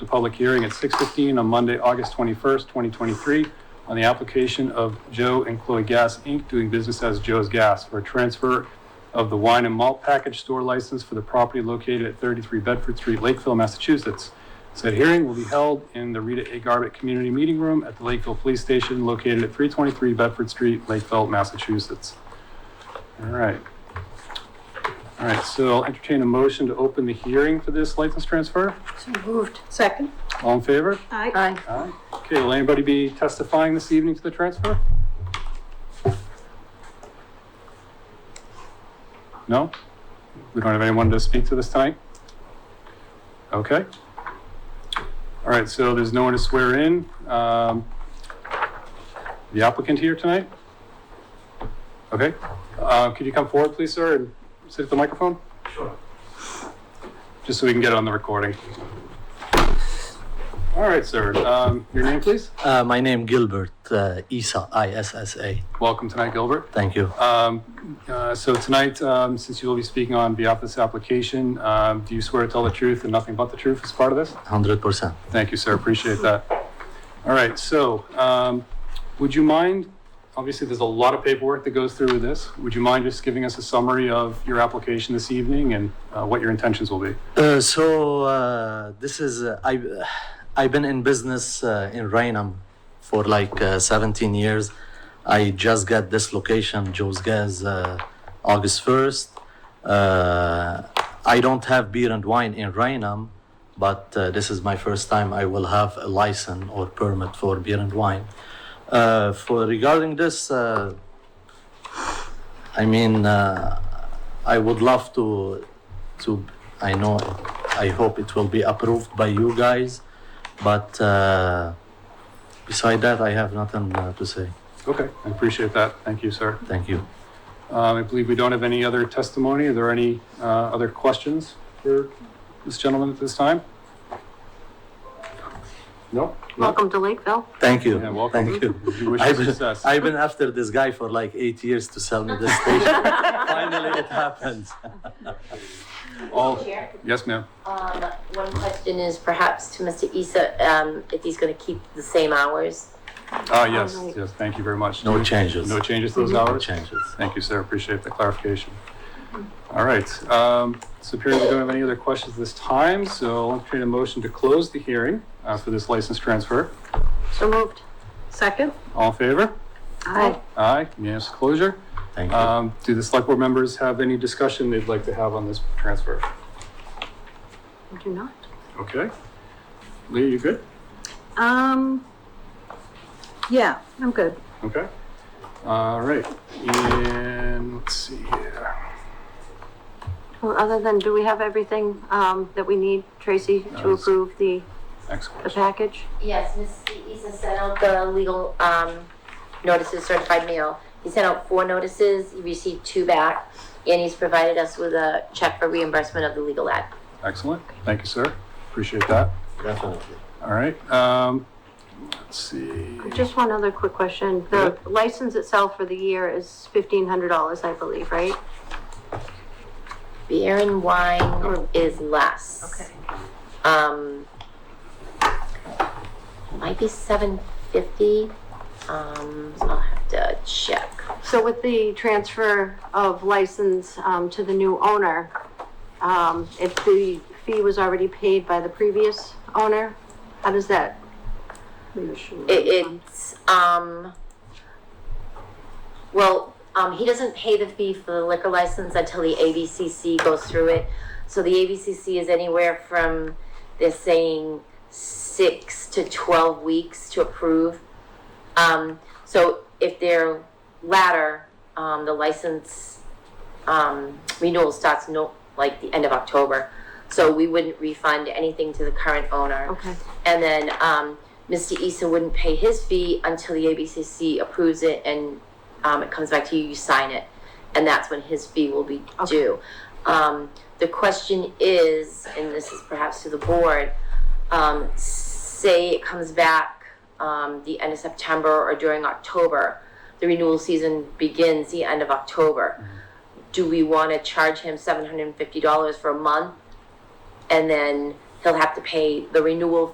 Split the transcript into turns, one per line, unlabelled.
the public hearing at 6:15 on Monday, August 21st, 2023, on the application of Joe and Chloe Gas, Inc., doing business as Joe's Gas, for a transfer of the wine and malt package store license for the property located at 33 Bedford Street, Lakeville, Massachusetts. Said hearing will be held in the Rita A. Garbett Community Meeting Room at the Lakeville Police Station located at 323 Bedford Street, Lakeville, Massachusetts. All right. All right, so I'll entertain a motion to open the hearing for this license transfer.
So moved. Second?
All in favor?
Aye.
Aye. Okay, will anybody be testifying this evening to the transfer? No? We don't have anyone to speak to this tonight? Okay. All right, so there's no one to swear in. Um, The applicant here tonight? Okay, Uh, could you come forward, please, sir, and sit at the microphone?
Sure.
Just so we can get it on the recording. All right, sir, Um, your name, please?
Uh, my name Gilbert uh, Isa I S S A.
Welcome tonight, Gilbert.
Thank you.
Um, uh, So tonight, um, since you will be speaking on behalf of this application, um, do you swear to tell the truth and nothing but the truth as part of this?
Hundred percent.
Thank you, sir, appreciate that. All right, so um, would you mind, obviously, there's a lot of paperwork that goes through with this. Would you mind just giving us a summary of your application this evening and uh, what your intentions will be?
Uh, so uh, this is uh, I. I've been in business uh, in Rainham for like uh, 17 years. I just got this location, Joe's Gas, uh, August 1st. Uh, I don't have beer and wine in Rainham, but uh, this is my first time I will have a license or permit for beer and wine. Uh, for regarding this, uh, I mean, uh, I would love to, to, I know, I hope it will be approved by you guys, but uh, beside that, I have nothing uh, to say.
Okay, I appreciate that. Thank you, sir.
Thank you.
Um, I believe we don't have any other testimony. Are there any uh, other questions for this gentleman at this time? No?
Welcome to Lakeville.
Thank you.
Yeah, welcome.
Thank you.
We wish you
I've been,
success.
I've been after this guy for like eight years to sell me this station. Finally, it happens.
All,
Chair,
yes, ma'am.
um, one question is perhaps to Mr. Isa, um, if he's gonna keep the same hours?
Ah, yes, yes, thank you very much.
No changes.
No changes to those
No
hours?
changes.
Thank you, sir. Appreciate the clarification. All right, um, so appearing we don't have any other questions this time, so I'll entertain a motion to close the hearing uh, for this license transfer.
So moved. Second? Oh,
All in favor?
Aye.
Aye, unanimous closure.
Thank you.
Um, do the select board members have any discussion they'd like to have on this transfer?
We do not.
Okay. Lee, you good?
Um, yeah, I'm good.
Okay. All right, and let's see here.
Well, other than, do we have everything, um, that we need, Tracy, to
it's-
approve the,
Next
the
question.
package?
Yes, Mr. Isa sent out the legal, um, notices certified mail. He sent out four notices, he received two back, and he's provided us with a check for reimbursement of the legal ad.
Excellent. Thank you, sir. Appreciate that.
Definitely.
All right, um, let's see.
Just one other quick question. The license itself for the year is fifteen hundred dollars, I believe, right?
Beer and wine is less. Um, might be seven fifty, um, I'll have to check.
So with the transfer of license um, to the new owner, um, if the fee was already paid by the previous owner, how does that?
It, it's, um, well, um, he doesn't pay the fee for the liquor license until the ABCC goes through it. So the ABCC is anywhere from, they're saying six to twelve weeks to approve. Um, so if they're latter, um, the license, um, renewal starts no, like the end of October. So we wouldn't refund anything to the current owner.
Okay,
And then um, Mr. Eason wouldn't pay his fee until the ABCC approves it and um, it comes back to you, you sign it. And that's when his fee will be
Okay.
due. Um, the question is, and this is perhaps to the board, um, say it comes back um, the end of September or during October. The renewal season begins the end of October. Do we want to charge him $750 for a month? And then he'll have to pay the renewal